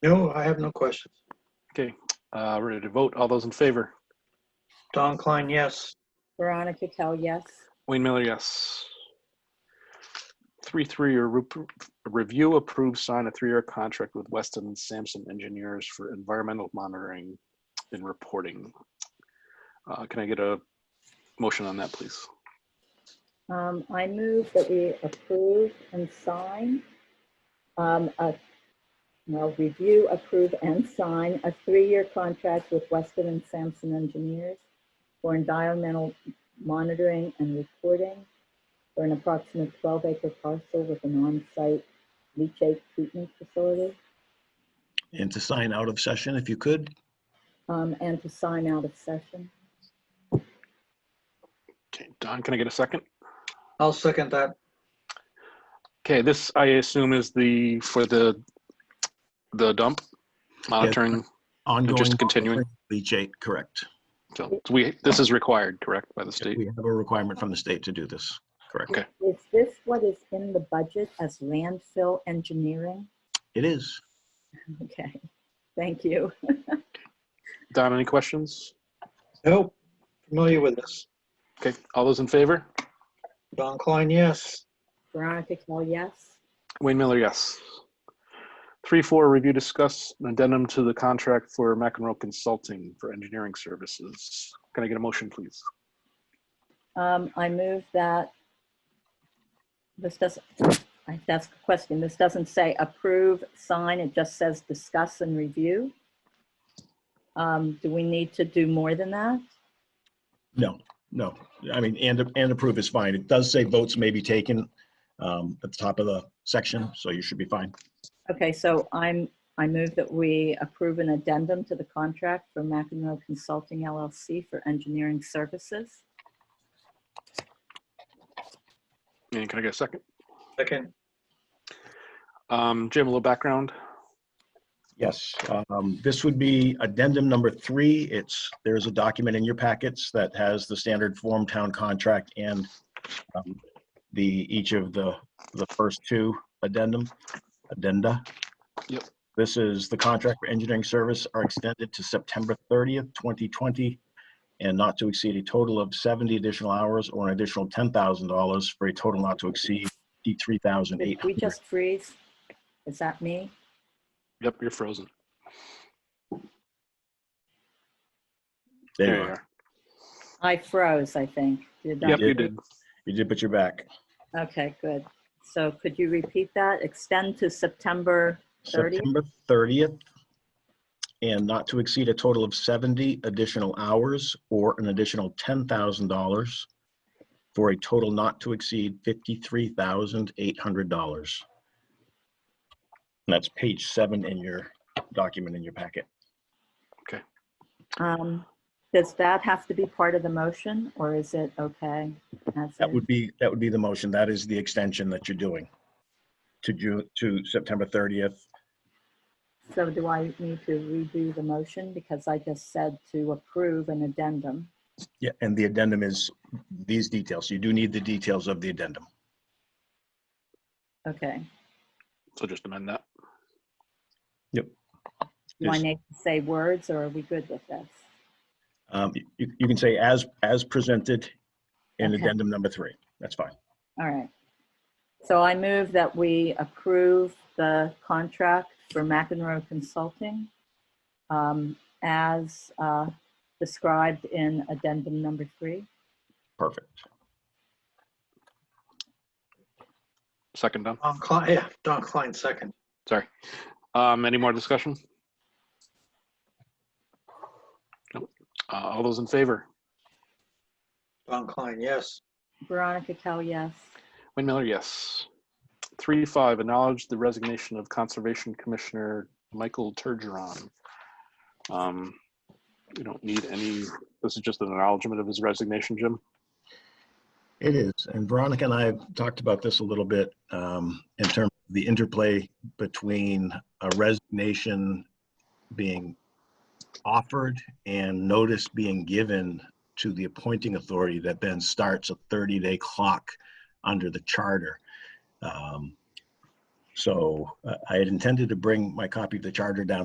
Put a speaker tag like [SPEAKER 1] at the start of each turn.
[SPEAKER 1] No, I have no questions.
[SPEAKER 2] Uh, ready to vote. All those in favor?
[SPEAKER 1] Don Klein, yes.
[SPEAKER 3] Veronica Cal, yes.
[SPEAKER 2] Wayne Miller, yes. Three, three, or repro- review approved, sign a three-year contract with Weston and Sampson Engineers for environmental monitoring and reporting. Uh, can I get a motion on that, please?
[SPEAKER 3] Um, I move that we approve and sign, um, a, well, review, approve, and sign a three-year contract with Weston and Sampson Engineers for environmental monitoring and reporting for an approximate twelve-acre parcel with an on-site leachate treatment facility,
[SPEAKER 4] and to sign out of session if you could.
[SPEAKER 3] um, and to sign out of session.
[SPEAKER 2] Okay, Don, can I get a second?
[SPEAKER 1] I'll second that.
[SPEAKER 2] Okay, this I assume is the, for the, the dump monitoring.
[SPEAKER 4] Ongoing.
[SPEAKER 2] just continuing.
[SPEAKER 4] Leachate, correct.
[SPEAKER 2] So we, this is required, correct, by the state?
[SPEAKER 4] We have a requirement from the state to do this, correct?
[SPEAKER 2] Okay.
[SPEAKER 3] Is this what is in the budget as landfill engineering?
[SPEAKER 4] It is.
[SPEAKER 3] Okay, thank you.
[SPEAKER 2] Don, any questions?
[SPEAKER 1] Nope. Familiar with this.
[SPEAKER 2] Okay, all those in favor?
[SPEAKER 1] Don Klein, yes.
[SPEAKER 3] Veronica Kell, yes.
[SPEAKER 2] Wayne Miller, yes. Three, four, review, discuss an addendum to the contract for McEnroe Consulting for engineering services. Can I get a motion, please?
[SPEAKER 3] Um, I move that this doesn't, I- that's a question. This doesn't say approve, sign. It just says discuss and review. Um, do we need to do more than that?
[SPEAKER 4] No, no. I mean, and, and approve is fine. It does say votes may be taken um, at the top of the section, so you should be fine.
[SPEAKER 3] Okay, so I'm, I move that we approve an addendum to the contract for McEnroe Consulting LLC for engineering services.
[SPEAKER 2] And can I get a second?
[SPEAKER 1] Second.
[SPEAKER 2] Um, Jim, a little background.
[SPEAKER 4] Yes, um, this would be addendum number three. It's, there's a document in your packets that has the standard form town contract and um, the, each of the, the first two addendum, addenda.
[SPEAKER 2] Yep.
[SPEAKER 4] This is the contract for engineering service are extended to September 30th, 2020, and not to exceed a total of 70 additional hours or an additional $10,000 for a total not to exceed
[SPEAKER 3] Did we
[SPEAKER 4] 53,800.
[SPEAKER 3] just freeze? Is that me?
[SPEAKER 2] Yep, you're frozen.
[SPEAKER 4] There you are.
[SPEAKER 2] are.
[SPEAKER 3] I froze, I think. Did that-
[SPEAKER 2] Yep, you did.
[SPEAKER 4] You did put your back.
[SPEAKER 3] Okay, good. So could you repeat that? Extend to September 30th?
[SPEAKER 4] September 30th, and not to exceed a total of 70 additional hours or an additional $10,000 for a total not to exceed $53,800. And that's page seven in your document in your packet.
[SPEAKER 3] Um, Does that have to be part of the motion or is it okay? as
[SPEAKER 4] That
[SPEAKER 3] is?
[SPEAKER 4] would be, that would be the motion. That is the extension that you're doing to June, to September 30th.
[SPEAKER 3] So do I need to redo the motion because I just said to approve an addendum?
[SPEAKER 4] Yeah, and the addendum is these details. You do need the details of the addendum.
[SPEAKER 3] Okay.
[SPEAKER 2] So just amend that.
[SPEAKER 3] Do I
[SPEAKER 4] Yes.
[SPEAKER 3] need to say words or are we good with this?
[SPEAKER 4] Um, You you can say as, as presented in
[SPEAKER 3] Okay.
[SPEAKER 4] addendum number three. That's fine.
[SPEAKER 3] All right. So I move that we approve the contract for McEnroe Consulting um, as uh, described in addendum number three.
[SPEAKER 4] Perfect.
[SPEAKER 2] Second done.
[SPEAKER 1] Don Klein, yeah, Don Klein, second.
[SPEAKER 2] Sorry. Um, any more discussion? Nope. Uh, all those in favor?
[SPEAKER 1] Don Klein, yes.
[SPEAKER 3] Veronica Kell, yes.
[SPEAKER 2] Wayne Miller, yes. Three five, acknowledge the resignation of Conservation Commissioner Michael Turgeron. Um, We don't need any, this is just an acknowledgement of his resignation, Jim.
[SPEAKER 4] It is. And Veronica and I have talked about this a little bit um, in terms of the interplay between a resignation being offered and notice being given to the appointing authority that then starts a 30-day clock under the charter. Um, So uh, I had intended to bring my copy of the charter down